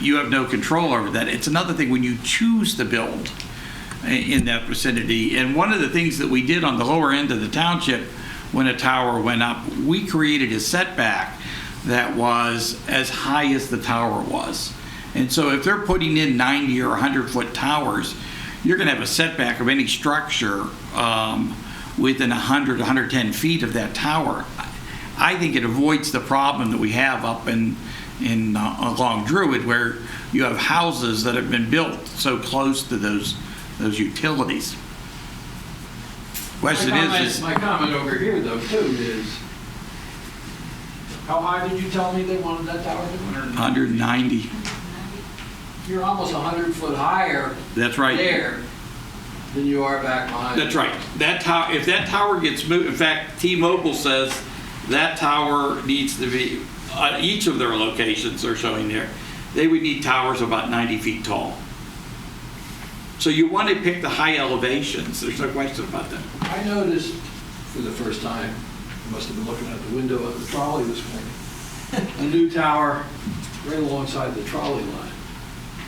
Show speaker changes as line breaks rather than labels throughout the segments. you have no control over that. It's another thing when you choose to build i- in that vicinity. And one of the things that we did on the lower end of the township when a tower went up, we created a setback that was as high as the tower was. And so if they're putting in 90 or 100 foot towers, you're going to have a setback of any structure um, within 100, 110 feet of that tower. I think it avoids the problem that we have up in, in, uh, along Druid where you have houses that have been built so close to those, those utilities. Question
My comment-
is, is,
My comment over here, though, too, is, how high did you tell me they wanted that tower to be?
190,
You're almost 100 foot higher
that's right.
there than you are back behind.
That's right. That tower, if that tower gets moved, in fact, T-Mobile says that tower needs to be, uh, each of their locations they're showing there, they would need towers about 90 feet tall. So you want to pick the high elevations, there's no question about that.
I noticed for the first time, I must have been looking out the window of the trolley this morning, a new tower right alongside the trolley line.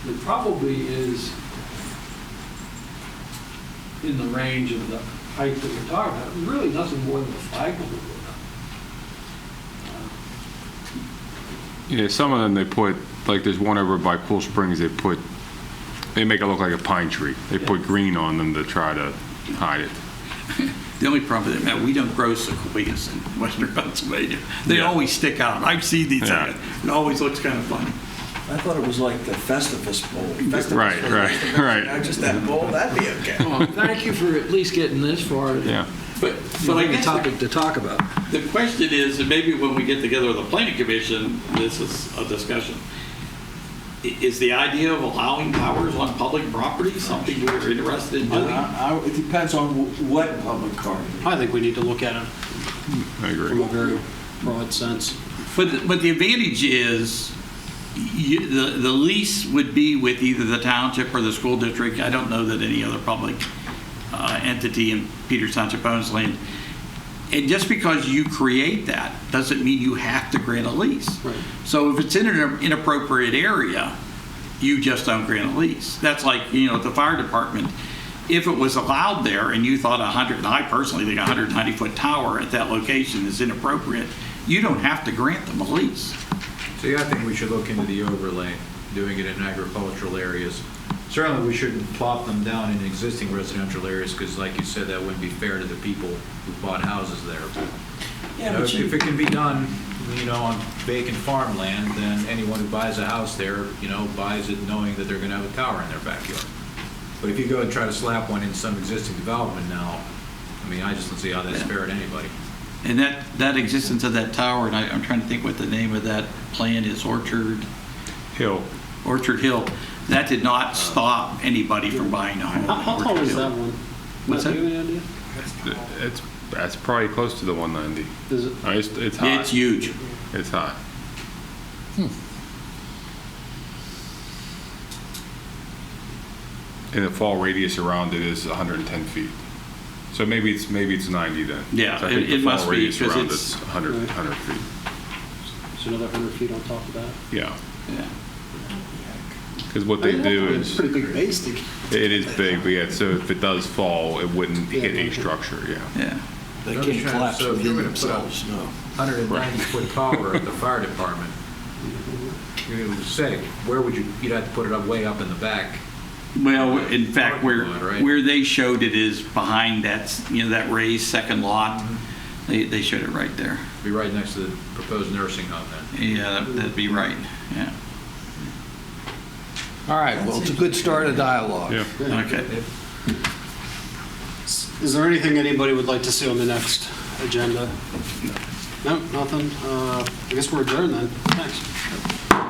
It probably is in the range of the height that we're talking about. It's Really nothing more than a flagpole.
Yeah, some of them they put, like there's one over by Cool Springs, they put, they make it look like a pine tree. They put green on them to try to hide it.
The only problem with that, Matt, we don't grow sequoias in western Pennsylvania. They
Yeah.
always stick out. I've seen these,
Yeah.
it always looks kind of funny.
I thought it was like the Festivus Bowl. Festivus
Right,
Bowl.
right,
Festivus,
right.
Not just that bowl, that'd be okay.
Well, Thank you for at least getting this far.
Yeah.
But, but I
Giving a
guess the
topic to talk about.
The question is, and maybe when we get together with the planning commission, this is a discussion. I- Is the idea of allowing towers on public property something we're interested in doing?
I- I- It depends on wh- what public car.
I think we need to look at
I
it from
agree.
a very broad sense.
But, the- but the advantage is, you, the, the lease would be with either the township or the school district. I don't know that any other public uh, entity in Peters Township owns land. And just because you create that, doesn't mean you have to grant a lease.
Right.
So if it's in an inappropriate area, you just don't grant a lease. That's like, you know, the fire department, if it was allowed there and you thought a hundred, and I personally think a hundred ninety foot tower at that location is inappropriate, you don't have to grant them a lease.
So yeah, I think we should look into the overlay, doing it in agricultural areas. Certainly, we shouldn't plop them down in existing residential areas, because like you said, that wouldn't be fair to the people who bought houses there. You know,
but
If
you-
if it can be done, you know, on vacant farmland, then anyone who buys a house there, you know, buys it knowing that they're gonna have a tower in their backyard. But if you go and try to slap one in some existing development now, I mean, I just don't see how that's fair to anybody.
And that, that existence of that tower, and I, I'm trying to think what the name of that plan is, Orchard,
Hill.
Orchard Hill, that did not stop anybody from buying a home.
How, how
in
tall
Orchard
is
Hill.
that one?
What's
Matt, do
that?
you have any idea?
It's, that's probably close to the 190.
Is it,
Uh, It's, it's
Yeah, It's
high.
huge.
It's high.
Hmm.
And the fall radius around it is 110 feet. So maybe it's, maybe it's 90 then.
Yeah,
So I think
it-
the
it
fall
must be,
radius
'cause
around
it's-
100, 100 feet.
it's another 100 feet on top of that?
Yeah.
Yeah.
Because what they
I mean,
do
that's
is.
a Pretty big base to
It is big, but yeah, so if it does fall, it wouldn't
Yeah,
hit a
okay.
structure, yeah.
Yeah.
They can't
I'm trying to-
collapse
so if
within
you're gonna put a-
themselves, no.
190-foot tower at the fire department, you would say, where would you, you'd have to put it up, way up in the back.
Well, in fact, where,
Parking lot, right?
where they showed it is behind that, you know, that raised second lot.
Mm-hmm.
They, they showed it right there.
Be right next to the proposed nursing home then.
Yeah, that- that'd be right, yeah.
All right, well, it's a good start of dialogue.
Yeah.
Okay.
Is there anything anybody would like to see on the next agenda? No, nothing? Uh, I guess we're adjourned then. Thanks.